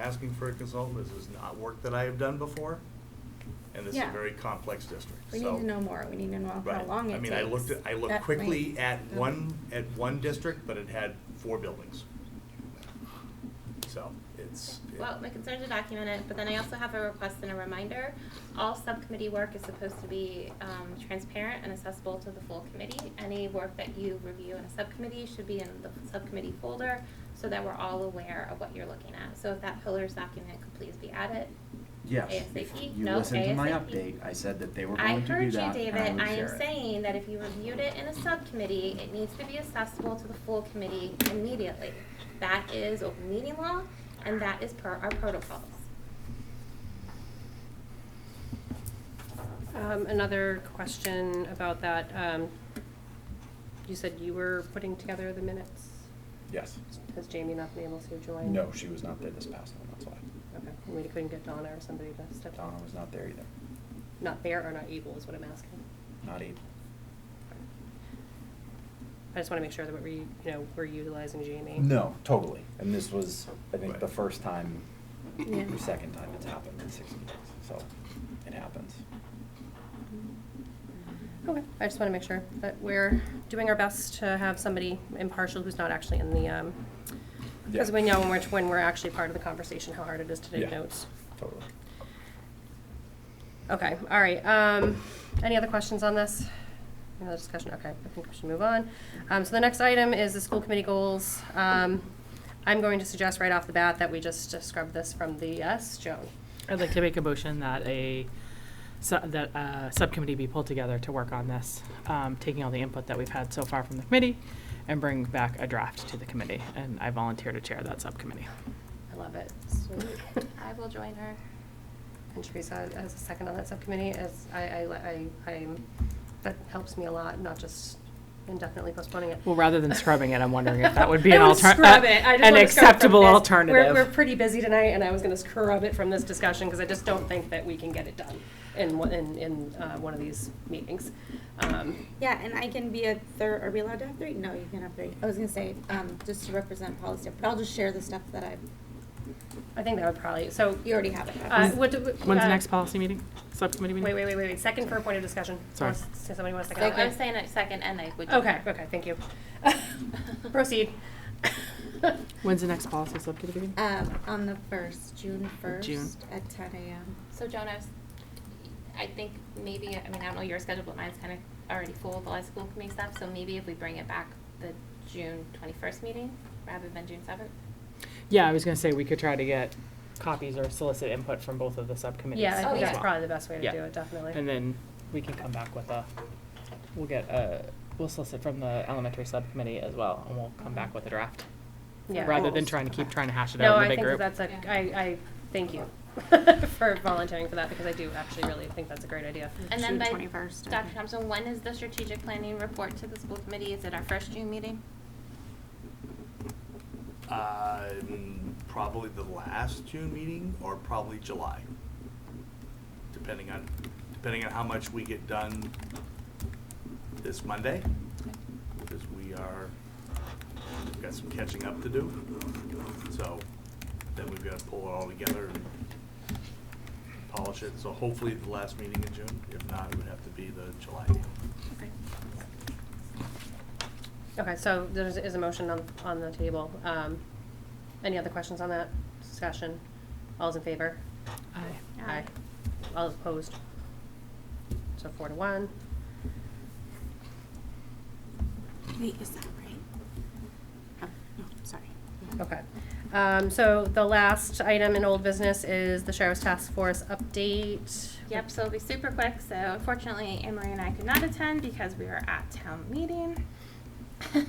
asking for a consultant, this is not work that I have done before, and this is a Yeah. very complex district, We so- need to know more, we need to know how Right. long I it takes. mean, I looked, at- I looked That quickly might- at that- one, at one district, but it had four buildings. So, it's. it- Well, my concern is to document it, but then I also have a request and a reminder. All subcommittee work is supposed to be um, transparent and accessible to the full committee. Any work that you review in a subcommittee should be in the subcommittee folder so that we're all aware of what you're looking at. So if that pillars document could please be added. Yes, ASAP? if you No, listened to my ASAP. update, I said that they were I going to do heard you, that, David. and I would I share it. am saying that if you reviewed it in a subcommittee, it needs to be accessible to the full committee immediately. That is open meeting law, and that is per our protocols. Um, Another question about that. um, You said you were putting together the minutes. Yes. Has Jamie not been able to join? No, she was not there this past one, that's why. Okay, we couldn't get Donna or somebody to step in. Donna was not there either, Not there or not able is what I'm asking. not e- able. I just want to make sure that we're, you know, we're utilizing Jamie. No, totally, and this was, I think, Right. the first time, Yeah. or second time it's happened in six meetings, so it happens. Okay, I just want to make sure that we're doing our best to have somebody impartial who's not actually in the, um, because Yeah. we know when we're, when we're actually part of the conversation, how hard it is to take Yeah. notes. Totally. Okay, all right. Um, any other questions on this? Another discussion, okay, I think we should move on. Um, so the next item is the school committee goals. Um, I'm going to suggest right off the bat that we just uh, scrub this from the, yes, Joan? I'd like to make a motion that a, su- that a subcommittee be pulled together to work on this, um, taking all the input that we've had so far from the committee and bring back a draft to the committee. And I volunteer to chair that subcommittee. I love it. Sweet. I will join her. And Teresa as a second on that subcommittee is, I, I, I, I'm, that helps me a lot, not just indefinitely postponing it. Well, rather than scrubbing it, I'm wondering if that would be an I would alter- scrub uh, it. I just an wanna scrub it from acceptable this. alternative. We're, we're pretty busy tonight, and I was gonna scrub it from this discussion, because I just don't think that we can get it done in, one- in, in, uh, one of these meetings. Um, Yeah, and I can be a third, are we allowed to have three? No, you can have three. I was gonna say, um, just to represent policy, but I'll just share the stuff that I, I think that would probably, so. you already have it. Uh, what do we- When's uh, the next policy meeting? Subcommittee Wait, meeting? wait, wait, wait, wait, second for a point of discussion. Sorry. Does somebody want to second? No, that? I'm saying it second and I would. join Okay, her. okay, thank you. Proceed. When's the next policy subcommittee meeting? Uh, Um, on the first, June first, June. at ten AM. So Jonas, I think maybe, I mean, I don't know your schedule, but mine's kind of already full with a lot of school committee stuff, so maybe if we bring it back the June twenty-first meeting rather than June seventh? Yeah, I was gonna say we could try to get copies or solicit input from both of the subcommittees. Yeah, I Oh, think as that's well. probably the best way to Yeah. do it, definitely. And then we can come back with a, we'll get a, we'll solicit from the elementary subcommittee as well, and we'll come back with a draft. Yeah. Rather than Goals. trying to keep trying to hash it No, out in I the big think that group. that's a, Yeah. I, I, thank you for volunteering for that, because I do actually really think that's a great idea. And then June by, 21st, I Dr. think. Thompson, when is the strategic planning report to the school committee? Is it our first June meeting? Um, probably the last June meeting, or probably July, depending on, depending on how much we get done this Monday, because we are, we've got some catching up to do. So, then we've got to pull it all together and polish it, so hopefully the last meeting in June, if not, it would have to be the July meeting. Okay, so there is- is a motion on, on the table. Um, Any other questions on that discussion? All's in favor? Aye. All opposed? So four to one. Wait, is that right? Oh, no, sorry. Okay. Um, So the last item in old business is the sheriff's task force update. Yep, so it'll be super quick. So unfortunately, Anne Marie and I could not attend because we were at town meeting.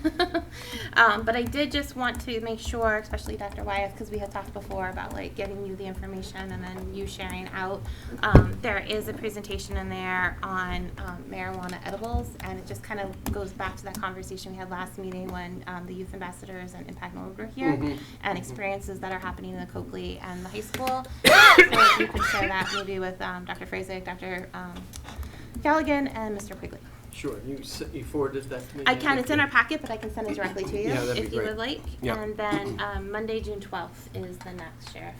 um, but I did just want to make sure, especially Dr. Wyeth, because we had talked before about like getting you the information and then you sharing out. Um, there is a presentation in there on um, marijuana edibles, and it just kind of goes back to that conversation we had last meeting when um, the youth ambassadors and Impact Norwood were here, and experiences that are happening in the Coakley and the high school. so if you could share that maybe with um, Dr. Frazek, Dr. Um, Galligan, and Mr. Quigley. Sure, you, s- you forwarded that to me? I can. It's in our packet, but I can send it directly to you Yeah, Mm-hmm. that'd be if you great. would like. Yep. And then um, Monday, June twelfth, is the next sheriff